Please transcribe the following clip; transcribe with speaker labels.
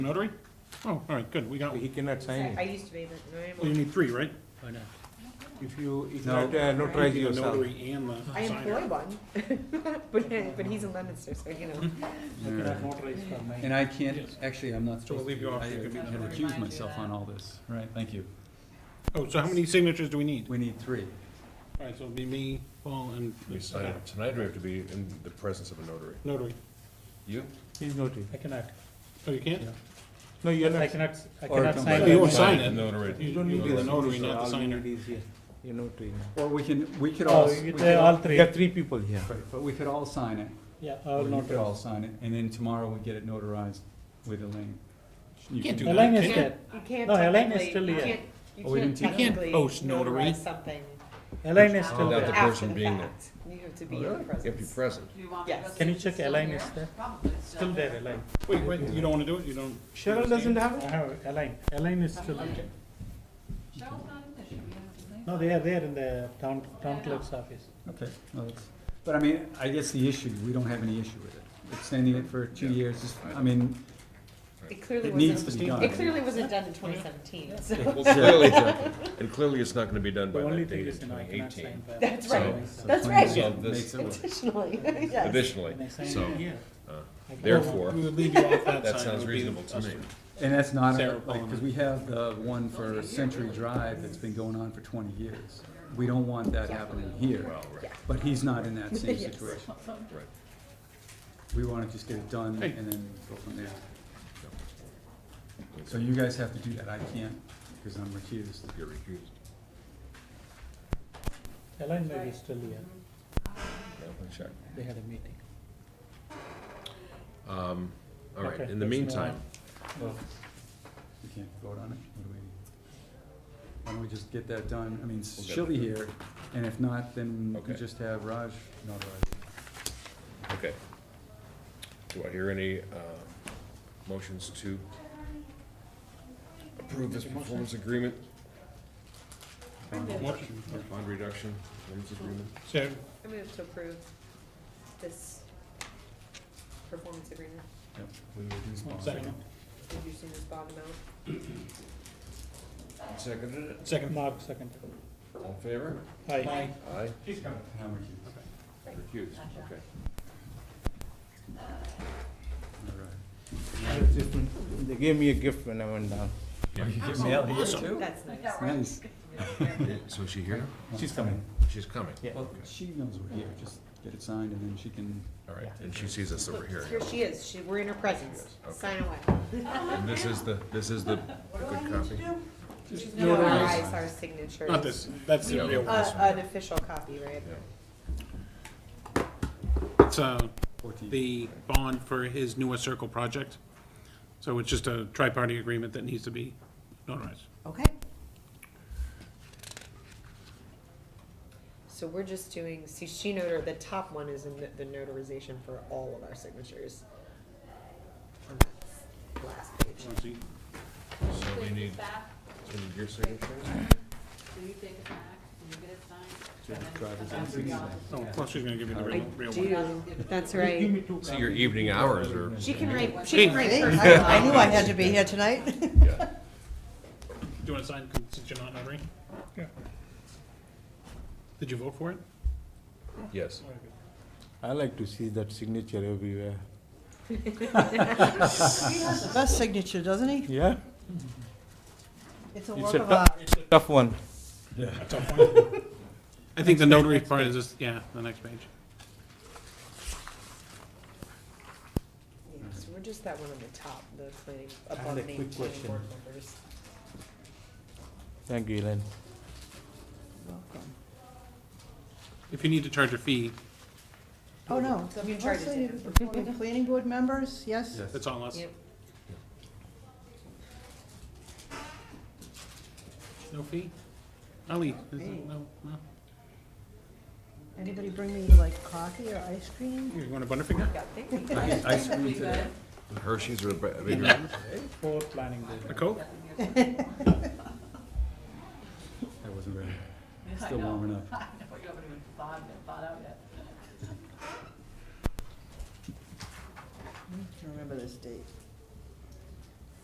Speaker 1: Notary? Oh, all right, good, we got,
Speaker 2: He
Speaker 1: one.
Speaker 2: cannot sign
Speaker 3: I
Speaker 2: it.
Speaker 3: used to be, but I am.
Speaker 1: well, you need three, right?
Speaker 2: If you, you
Speaker 4: No.
Speaker 2: cannot uh, notarize
Speaker 1: You need the
Speaker 2: yourself.
Speaker 1: Notary and the
Speaker 3: I employ
Speaker 1: signer.
Speaker 3: one, but, but he's in Leominster, so you know.
Speaker 4: And I can't,
Speaker 1: Yes.
Speaker 4: actually, I'm not supposed to.
Speaker 1: leave you
Speaker 4: be-
Speaker 1: off,
Speaker 4: I
Speaker 1: you can be
Speaker 4: had
Speaker 1: number
Speaker 4: recused myself on all this. Right, thank you.
Speaker 1: Oh, so how many signatures do we need?
Speaker 4: We need three.
Speaker 1: All right, so it'll be me, Paul, and
Speaker 5: We sign it tonight, or we have to be in the presence of a notary?
Speaker 1: notary.
Speaker 5: You?
Speaker 2: He's notary.
Speaker 6: I cannot,
Speaker 1: Oh, you can't?
Speaker 2: Hmm. No, you're
Speaker 6: I
Speaker 2: not.
Speaker 6: cannot, I
Speaker 4: Or
Speaker 6: cannot
Speaker 4: come
Speaker 6: sign
Speaker 4: back.
Speaker 6: that.
Speaker 1: You won't sign
Speaker 5: The
Speaker 1: it.
Speaker 5: Notary.
Speaker 2: You don't need
Speaker 1: be the
Speaker 2: this.
Speaker 1: notary,
Speaker 2: So
Speaker 1: not the
Speaker 2: all you
Speaker 1: signer.
Speaker 2: need is here. You're notary. now.
Speaker 4: Or we can, we could all,
Speaker 6: Oh,
Speaker 4: we
Speaker 6: you-
Speaker 4: could
Speaker 6: they all
Speaker 4: all,
Speaker 6: three,
Speaker 2: There are three Oh, people here.
Speaker 4: right, but we could all sign it.
Speaker 6: yeah,
Speaker 4: Or
Speaker 6: all
Speaker 4: you could all
Speaker 6: notarized.
Speaker 4: sign it, and then tomorroll we get it notarized with Elaine. You
Speaker 1: Can't
Speaker 4: can-
Speaker 1: do that.
Speaker 6: Elaine is
Speaker 1: Can't-
Speaker 6: dead,
Speaker 3: You can't
Speaker 6: No, Elaine is
Speaker 3: technically,
Speaker 6: still
Speaker 3: you
Speaker 6: here.
Speaker 3: can't,
Speaker 4: Oh, we
Speaker 3: you can't
Speaker 4: didn't take-
Speaker 1: You can't
Speaker 3: technically
Speaker 1: post notary.
Speaker 3: notarize something
Speaker 6: Elaine
Speaker 2: Oh,
Speaker 6: is still
Speaker 5: Without the
Speaker 6: there.
Speaker 3: after
Speaker 5: person
Speaker 3: the
Speaker 5: being there.
Speaker 3: fact. You have to be in the
Speaker 5: You have to be
Speaker 3: presence.
Speaker 5: present.
Speaker 3: Yes.
Speaker 6: Can you check Elaine is there? Still there, Elaine.
Speaker 1: Wait, wait, you don't wanna do it, you don't?
Speaker 2: Cheryl doesn't have
Speaker 6: I
Speaker 2: it?
Speaker 6: have Elaine, Elaine is still there. No, they are there in the town, town clerk's office.
Speaker 4: Okay, well, that's, but I mean, I guess the issue, we don't have any issue with it. Extending it for two years is, I mean,
Speaker 3: It clearly
Speaker 4: it needs to
Speaker 3: wasn't,
Speaker 4: be done.
Speaker 3: it clearly wasn't done in twenty seventeen, so,
Speaker 5: Well, clearly, and clearly it's not gonna be done
Speaker 6: The
Speaker 5: by
Speaker 6: only
Speaker 5: that
Speaker 6: thing
Speaker 5: date,
Speaker 6: is, you know, I
Speaker 5: twenty
Speaker 6: cannot
Speaker 5: eighteen.
Speaker 6: sign by.
Speaker 3: that's
Speaker 5: So-
Speaker 3: right,
Speaker 4: so
Speaker 3: that's
Speaker 4: plain-
Speaker 3: right.
Speaker 5: So
Speaker 4: makes
Speaker 5: this,
Speaker 4: it work.
Speaker 3: additionally, yes.
Speaker 5: additionally,
Speaker 6: Can I sign
Speaker 5: so,
Speaker 6: it here?
Speaker 5: uh,
Speaker 6: I can-
Speaker 5: therefore,
Speaker 1: We would leave you off that sign.
Speaker 5: that sounds
Speaker 1: It would be
Speaker 5: reasonable to
Speaker 1: us.
Speaker 5: me.
Speaker 4: And that's not,
Speaker 1: Sarah
Speaker 4: like, because we have the one for Century Drive that's been going on for twenty years. We don't want that happening here,
Speaker 5: Well, right,
Speaker 4: but he's not in that same
Speaker 3: Yes.
Speaker 4: situation.
Speaker 5: right.
Speaker 4: We wanna just get it done
Speaker 1: Hey.
Speaker 4: and then go from there. So you guys have to do that, I can't, because I'm recused.
Speaker 5: You're recused.
Speaker 6: Elaine may be still here,
Speaker 5: Well, let's check.
Speaker 6: they had a meeting.
Speaker 5: Um, all right,
Speaker 6: Okay,
Speaker 5: in the
Speaker 6: let's move
Speaker 5: meantime,
Speaker 4: We can't vote on it, what do we? Why don't we just get that done, I mean, she'll be here, and if not, then we
Speaker 5: Okay.
Speaker 4: just have Raj notarize.
Speaker 5: okay. Do I hear any, uh, motions to approve this performance agreement,
Speaker 1: Motion.
Speaker 5: bond reduction, performance agreement?
Speaker 1: So,
Speaker 3: I move to approve this performance agreement,
Speaker 1: second,
Speaker 3: reducing this bond amount.
Speaker 5: Seconded it,
Speaker 1: second.
Speaker 6: Mark second.
Speaker 5: all in favor?
Speaker 6: Aye.
Speaker 5: Aye.
Speaker 4: And I'm recused.
Speaker 5: Recused, okay.
Speaker 4: All right.
Speaker 2: It's different. They gave me a gift when I went down.
Speaker 4: Oh, you get mail here too?
Speaker 3: That's nice.
Speaker 4: Nice.
Speaker 5: So is she here?
Speaker 2: She's coming.
Speaker 5: She's coming.
Speaker 2: Yeah.
Speaker 4: Well, she knows we're here, just get it signed and then she can,
Speaker 5: All right, and she sees us that we're here.
Speaker 3: Here she is, she, we're in her presence,
Speaker 5: Okay.
Speaker 3: sign away.
Speaker 5: And this is the, this is the the good copy?
Speaker 3: Notarize our signatures.
Speaker 1: Not this, that's the
Speaker 5: Yeah.
Speaker 1: real one.
Speaker 3: Uh, an official copy, right?
Speaker 5: Yeah.
Speaker 1: It's, uh,
Speaker 4: fourteen,
Speaker 1: the bond for his newest circle project. So it's just a tri-party agreement that needs to be notarized.
Speaker 3: Okay. So we're just doing, see, she notar, the top one is in the- the notarization for all of our signatures. On that Last page.
Speaker 1: Let's see.
Speaker 5: So we need, we need your signature?
Speaker 1: Oh, plus she's gonna give you the
Speaker 3: I
Speaker 1: real, real one.
Speaker 3: do, that's right.
Speaker 5: See, your evening hours are,
Speaker 3: She can write,
Speaker 1: Hey.
Speaker 3: she can write hers.
Speaker 7: I I knew I had to be here tonight.
Speaker 5: yeah.
Speaker 1: Do you wanna sign, since you're not notary?
Speaker 6: Yeah.
Speaker 1: Did you vote for it?
Speaker 5: yes.
Speaker 2: I like to see that signature everywhere.
Speaker 7: The best signature, doesn't he?
Speaker 2: Yeah?
Speaker 7: It's a
Speaker 2: It's
Speaker 7: work
Speaker 2: a
Speaker 7: of
Speaker 2: tou-
Speaker 7: art.
Speaker 2: it's a tough one.
Speaker 1: I think the notary part is just, yeah, the next page.
Speaker 3: Yeah, So we're just that one on the top, the planning,
Speaker 2: I had
Speaker 3: above
Speaker 2: a
Speaker 3: named
Speaker 2: quick
Speaker 3: planning
Speaker 2: question.
Speaker 3: board members.
Speaker 2: Thank you, Elaine.
Speaker 7: Welcome.
Speaker 1: If you need to charge a fee,
Speaker 7: Oh, no.
Speaker 3: So if you charge
Speaker 7: Mostly
Speaker 3: it.
Speaker 7: the former Planning board members, yes?
Speaker 4: yes.
Speaker 1: that's on us.
Speaker 3: Yep.
Speaker 1: No fee? Ali, is it, no, no?
Speaker 7: Anybody bring me like coffee or ice cream?
Speaker 1: You want a Butterfinger?
Speaker 3: Yeah, thank you.
Speaker 4: I, I screwed today.
Speaker 5: Hershey's are a bit- a bigger.
Speaker 6: For planning board.
Speaker 1: A Coke?